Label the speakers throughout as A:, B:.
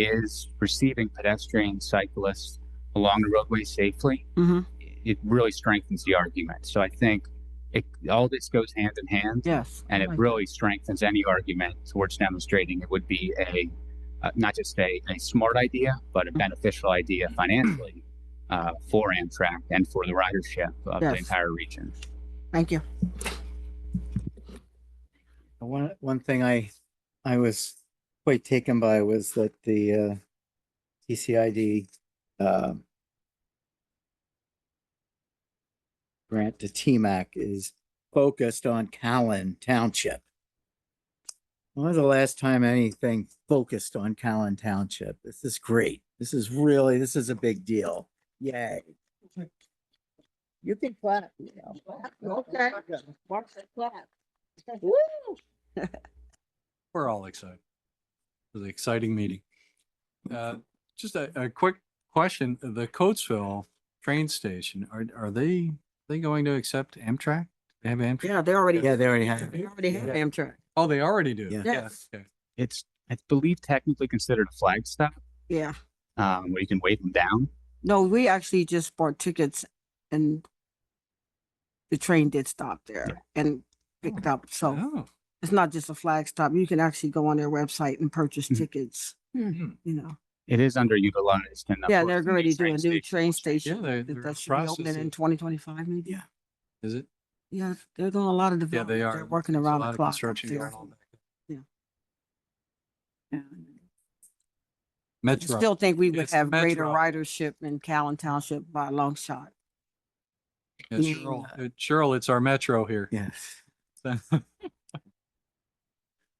A: is receiving pedestrians, cyclists along the roadway safely,
B: hmm
A: it really strengthens the argument. So I think it, all this goes hand in hand,
B: Yes.
A: and it
B: Oh my-
A: really strengthens any argument towards demonstrating it would be a uh, not just a, a smart idea, but a
B: Mm-hmm.
A: beneficial idea financially uh, for Amtrak and for the ridership of the
B: Yes.
A: entire region.
B: Thank you.
C: One, one thing I, I was quite taken by was that the, uh, TCID, uh, grant to TMAC is focused on Callan Township. When was the last time anything focused on Callan Township? This is great. This is really, this is a big deal. Yay. You can clap, you know.
B: Okay.
D: We're all excited. It was an exciting meeting. Uh, Just a, a quick question, the Coatesville train station, are, are they, they going to accept Amtrak? They have Amtrak?
B: Yeah, they already,
C: Yeah,
B: they
C: they already have.
B: already have Amtrak.
D: Oh, they already do?
C: Yeah.
B: Yes.
D: okay.
A: It's, I believe, technically considered a flag stop,
B: Yeah.
A: um, where you can wave them down.
B: No, we actually just bought tickets and the train did stop there and picked up. So
D: Oh,
B: it's not just a flag stop. You can actually go on their website and purchase
D: Mm-hmm.
A: Mhm.
B: tickets,
D: hmm.
B: you know.
A: It is underutilized. and of
B: Yeah,
A: course,
B: they're
A: the new
B: already
A: train
B: doing new
A: station-
B: train
D: yeah,
B: station.
D: they're,
B: That
D: they're
B: that should be opening in
D: processing.
B: twenty twenty-five maybe.
C: Yeah.
D: Is it?
B: Yeah, they're doing a lot of
D: Yeah,
B: development.
D: they are.
B: They're working
D: There's a
B: around
D: lot
B: the
D: of
B: clock. up
D: construction
B: there.
D: going on back
B: Yeah.
D: there. Metro.
B: Still think we would
D: It's
B: have greater
D: Metro.
B: ridership in Callan Township by a long shot.
D: Yeah,
C: being,
D: Cheryl, uh, Cheryl, it's our metro here.
C: Yes.
D: So-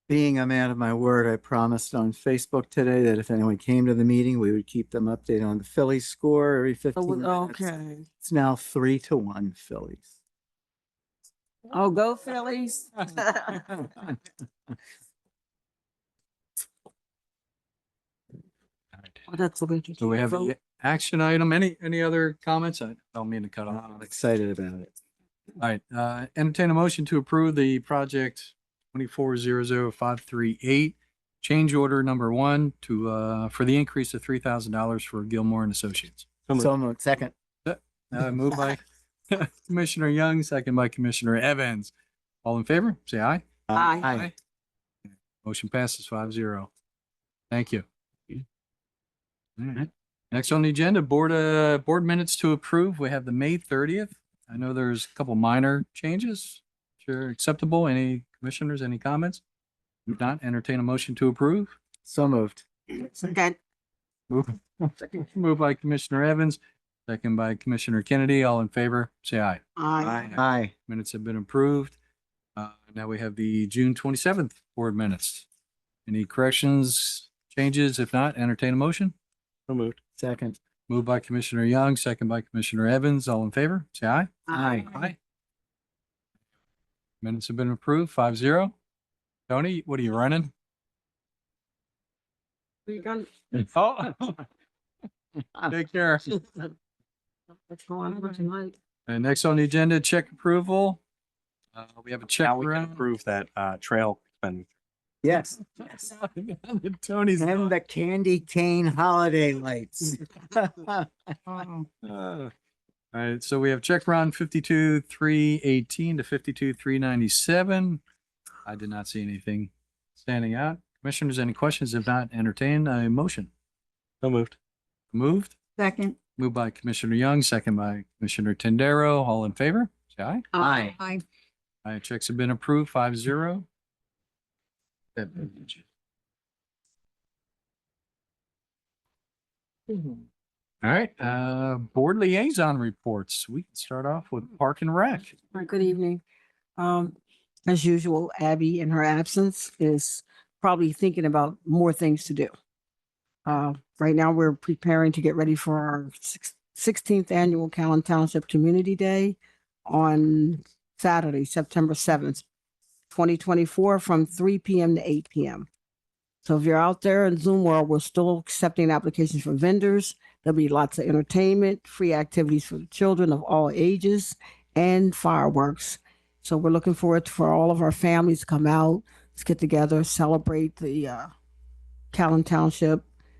C: Being a man of my word, I promised on Facebook today that if anyone came to the meeting, we would keep them updated on the Phillies score every
B: So
C: fifteen
B: we-
C: minutes.
B: Oh, Okay.
C: It's now three to one Phillies.
B: Oh, go Phillies. Oh, That's so interesting.
D: So we have
B: Vote.
D: the action item. Any, any other comments? I don't mean to cut off.
C: I'm excited about it.
D: All right, uh, entertain a motion to approve the project twenty-four zero zero five three eight. Change order number one to, uh, for the increase of three thousand dollars for Gilmore and Associates.
C: So moved. Second.
D: Uh, moved by Commissioner Young, second by Commissioner Evans. All in favor, say aye.
B: Aye.
C: Uh, Aye.
D: Motion passes five zero. Thank you.
A: Yeah.
D: All right.
A: Mm-hmm.
D: Next on the agenda, board, uh, board minutes to approve. We have the May thirtieth. I know there's a couple minor changes. Sure, acceptable. Any commissioners, any comments? If not, entertain a motion to approve.
C: So moved.
B: Second.
D: Moved by Commissioner Evans, second by Commissioner Kennedy. All in favor, say aye.
B: Aye.
C: Aye.
D: Minutes have been approved. Uh, now we have the June twenty-seventh board minutes. Any corrections, changes? If not, entertain a motion.
C: So moved. Second.
D: Moved by Commissioner Young, second by Commissioner Evans. All in favor, say aye.
C: Aye.
D: Minutes have been approved, five zero. Tony, what are you running?
B: We done-
D: Oh. Take care.
B: What's going on tonight?
D: And next on the agenda, check approval. Uh, we have a check.
E: Now we can approve that uh trail spending.
C: Yes.
D: around. Tony's.
C: And the candy cane holiday lights.
D: Uh, All right, so we have check round fifty-two, three eighteen to fifty-two, three ninety-seven. I did not see anything standing out. Commissioners, any questions? If not, entertain a motion.
E: So moved.
D: Moved,
B: Second.
D: moved by Commissioner Young, second by Commissioner Tendero. All in favor? Say aye.
C: Aye.
B: Aye.
D: All right, checks have been approved, five zero. All right, uh, board liaison reports. We can start off with Park and Rec.
B: All right, Good evening. Um, as usual, Abby in her absence is probably thinking about more things to do. Uh, right now, we're preparing to get ready for our sixteenth annual Callan Township Community Day on Saturday, September seventh, twenty twenty-four, from three PM to eight PM. So if you're out there in Zoom world, we're still accepting applications from vendors. There'll be lots of entertainment, free activities for the children of all ages and fireworks. So we're looking forward for all of our families to come out, let's get together, celebrate the uh, Callan Township